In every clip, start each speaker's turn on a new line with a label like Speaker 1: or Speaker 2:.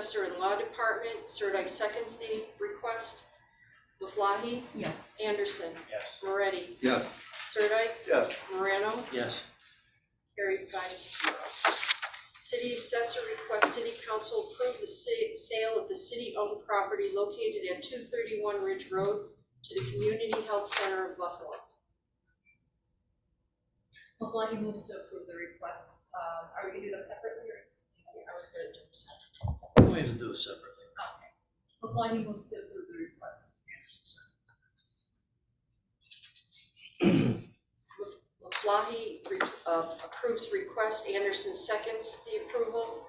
Speaker 1: Assessor and Law Department. Sirdike seconds the request. Maflahe?
Speaker 2: Yes.
Speaker 1: Anderson?
Speaker 3: Yes.
Speaker 1: Moretti?
Speaker 4: Yes.
Speaker 1: Sirdike?
Speaker 3: Yes.
Speaker 1: Morano?
Speaker 3: Yes.
Speaker 1: Carried five to zero. City Assessor requests City Council approve the sa- sale of the city-owned property located at two thirty-one Ridge Road to the Community Health Center of Buffalo.
Speaker 2: Maflahe moves to approve the requests. Um, are we gonna do them separately or?
Speaker 1: I was gonna do some.
Speaker 3: We need to do it separately.
Speaker 2: Okay. Maflahe moves to approve the request.
Speaker 1: Maflahe re- uh, approves request, Anderson seconds the approval.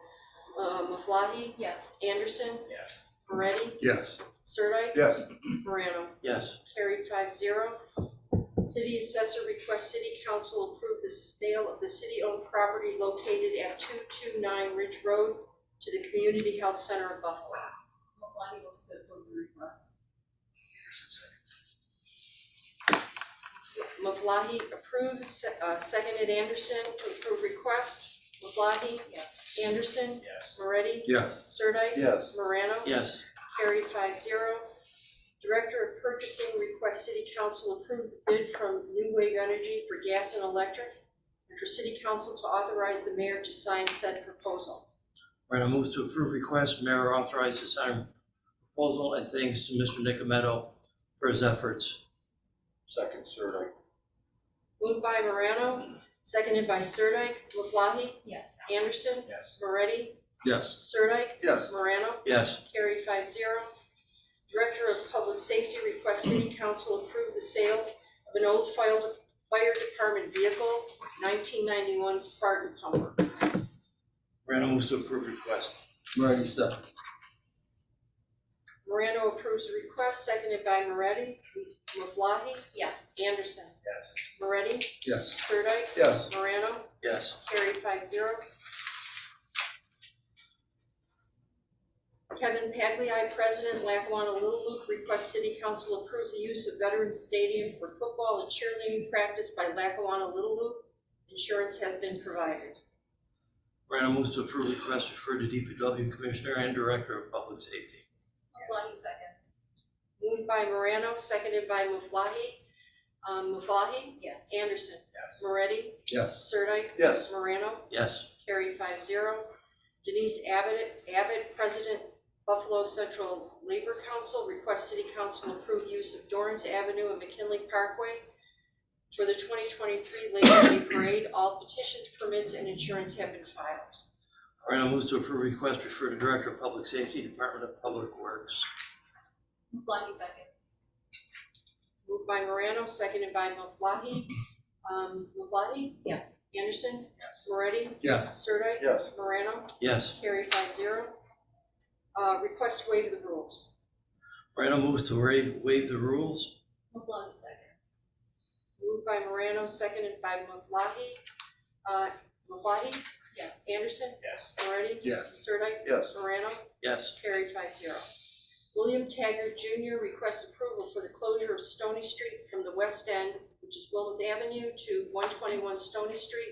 Speaker 1: Uh, Maflahe,
Speaker 2: Yes.
Speaker 1: Anderson,
Speaker 3: Yes.
Speaker 1: Moretti,
Speaker 4: Yes.
Speaker 1: Sirdike,
Speaker 3: Yes.
Speaker 1: Morano.
Speaker 3: Yes.
Speaker 1: Carried five zero. City assessor requests city council approve the sale of the city-owned property located at two-two-nine Ridge Road to the Community Health Center of Buffalo.
Speaker 2: Maflahe moves to approve the request.
Speaker 1: Maflahe approves, se- uh, seconded Anderson to approve request. Maflahe,
Speaker 2: Yes.
Speaker 1: Anderson,
Speaker 3: Yes.
Speaker 1: Moretti,
Speaker 4: Yes.
Speaker 1: Sirdike.
Speaker 3: Yes.
Speaker 1: Morano.
Speaker 3: Yes.
Speaker 1: Carried five zero. Director of Purchasing requests City Council approve the bid from New Wave Energy for gas and electric, and for City Council to authorize the mayor to sign said proposal.
Speaker 3: Morano moves to approve request, mayor authorized to sign proposal, and thanks to Mr. Nicometto for his efforts.
Speaker 5: Second, Sirdike.
Speaker 1: Moved by Morano, seconded by Sirdike, Maflahe,
Speaker 2: Yes.
Speaker 1: Anderson,
Speaker 3: Yes.
Speaker 1: Moretti,
Speaker 4: Yes.
Speaker 1: Sirdike,
Speaker 5: Yes.
Speaker 1: Morano.
Speaker 3: Yes.
Speaker 1: Carried five zero. Director of Public Safety requests City Council approve the sale of an old fire fire department vehicle, nineteen ninety-one Spartan pumper.
Speaker 3: Morano moves to approve request.
Speaker 4: Moretti second.
Speaker 1: Morano approves the request, seconded by Moretti. Maflahe?
Speaker 2: Yes.
Speaker 1: Anderson?
Speaker 3: Yes.
Speaker 1: Moretti?
Speaker 4: Yes.
Speaker 1: Sirdike?
Speaker 5: Yes.
Speaker 1: Morano?
Speaker 3: Yes.
Speaker 1: Carried five zero. Kevin Pagliai, President, Lackawanna Little Luke, requests City Council approve the use of Veterans Stadium for football and cheerleading practice by Lackawanna Little Luke. Insurance has been provided.
Speaker 3: Morano moves to approve request, refer to DPW Commissioner and Director of Public Safety.
Speaker 2: Maflahe seconds.
Speaker 1: Moved by Morano, seconded by Maflahe. Um, Maflahe?
Speaker 2: Yes.
Speaker 1: Anderson? Moretti?
Speaker 4: Yes.
Speaker 1: Sirdike?
Speaker 5: Yes.
Speaker 1: Morano?
Speaker 3: Yes.
Speaker 1: Carried five zero. Denise Abbott, Abbott, President Buffalo Central Labor Council, requests City Council approve use of Dorrance Avenue and McKinley Parkway for the twenty twenty-three Labor Day Parade. All petitions, permits, and insurance have been filed.
Speaker 3: Morano moves to approve request, refer to Director of Public Safety, Department of Public Works.
Speaker 2: Maflahe seconds.
Speaker 1: Moved by Morano, seconded by Maflahe. Um, Maflahe?
Speaker 2: Yes.
Speaker 1: Anderson? Moretti?
Speaker 4: Yes.
Speaker 1: Sirdike?
Speaker 5: Yes.
Speaker 1: Morano?
Speaker 3: Yes.
Speaker 1: Carried five zero. Uh, request to waive the rules.
Speaker 3: Morano moves to waive, waive the rules.
Speaker 2: Maflahe seconds.
Speaker 1: Moved by Morano, seconded by Maflahe. Uh, Maflahe,
Speaker 2: Yes.
Speaker 1: Anderson,
Speaker 3: Yes.
Speaker 1: Moretti?
Speaker 4: Yes.
Speaker 1: Sirdike?
Speaker 5: Yes.
Speaker 1: Morano?
Speaker 3: Yes.
Speaker 1: Carried five zero. William Taggart Jr. requests approval for the closure of Stony Street from the west end, which is Wilmouth Avenue, to one twenty-one Stony Street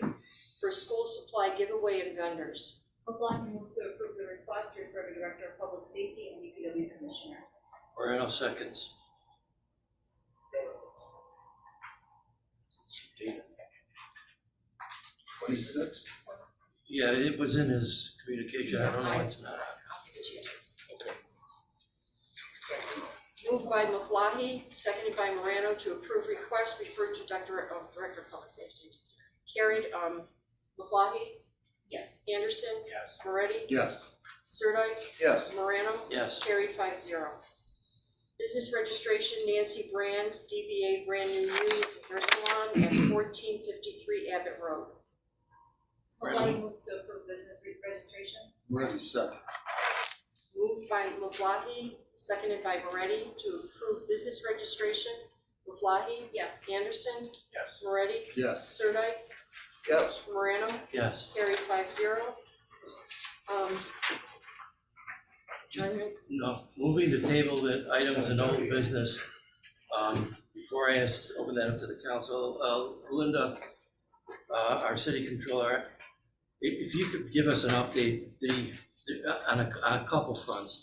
Speaker 1: for school supply giveaway and vendors.
Speaker 2: Maflahe moves to approve the request, refer to Director of Public Safety and DPW Commissioner.
Speaker 3: Morano seconds.
Speaker 4: Twenty-six.
Speaker 3: Yeah, it was in his communication, I don't know,
Speaker 1: Yeah, I-
Speaker 3: it's not.
Speaker 1: I'll give it to you. Moved by Maflahe, seconded by Morano to approve request referred to Director, oh, Director of Public Safety. Carried, um, Maflahe,
Speaker 2: Yes.
Speaker 1: Anderson,
Speaker 3: Yes.
Speaker 1: Moretti,
Speaker 4: Yes.
Speaker 1: Sirdike,
Speaker 5: Yes.
Speaker 1: Morano,
Speaker 3: Yes.
Speaker 1: carried five zero. Business registration Nancy Brand, DBA Brand New Units at Hair Salon at fourteen fifty-three Abbott Road.
Speaker 2: Maflahe moves to approve business re- registration.
Speaker 4: Moretti second.
Speaker 1: Moved by Maflahe, seconded by Moretti to approve business registration. Maflahe,
Speaker 2: Yes.
Speaker 1: Anderson,
Speaker 3: Yes.
Speaker 1: Moretti,
Speaker 4: Yes.
Speaker 1: Sirdike,
Speaker 5: Yes.
Speaker 1: Morano,
Speaker 3: Yes.
Speaker 1: carried five zero. Um, adjournment.
Speaker 3: No, moving to table the items in old business. Um, before I ask, open that up to the council, uh, Linda, uh, our city controller, if, if you could give us an update, the, on a, on a couple fronts.